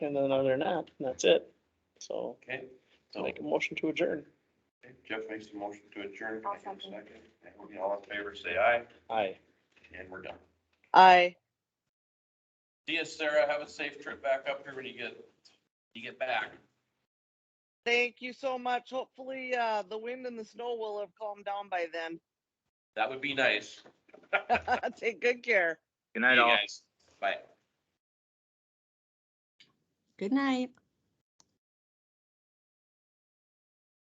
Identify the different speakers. Speaker 1: And then other than that, that's it. So
Speaker 2: Okay,
Speaker 1: I'll
Speaker 2: so
Speaker 1: make a motion to adjourn.
Speaker 2: okay, Jeff makes the motion to adjourn. Can I
Speaker 3: I'll
Speaker 2: get a
Speaker 3: second.
Speaker 2: second? And we all in favor, say aye,
Speaker 1: Aye.
Speaker 2: and we're done.
Speaker 4: I.
Speaker 2: See you, Sarah. Have a safe trip back up here when you get, you get back.
Speaker 4: Thank you so much. Hopefully, uh, the wind and the snow will have calmed down by then.
Speaker 2: That would be nice.
Speaker 4: Take good care.
Speaker 5: Good
Speaker 2: See
Speaker 5: night,
Speaker 2: you
Speaker 5: all.
Speaker 2: guys. Bye.
Speaker 3: Good night.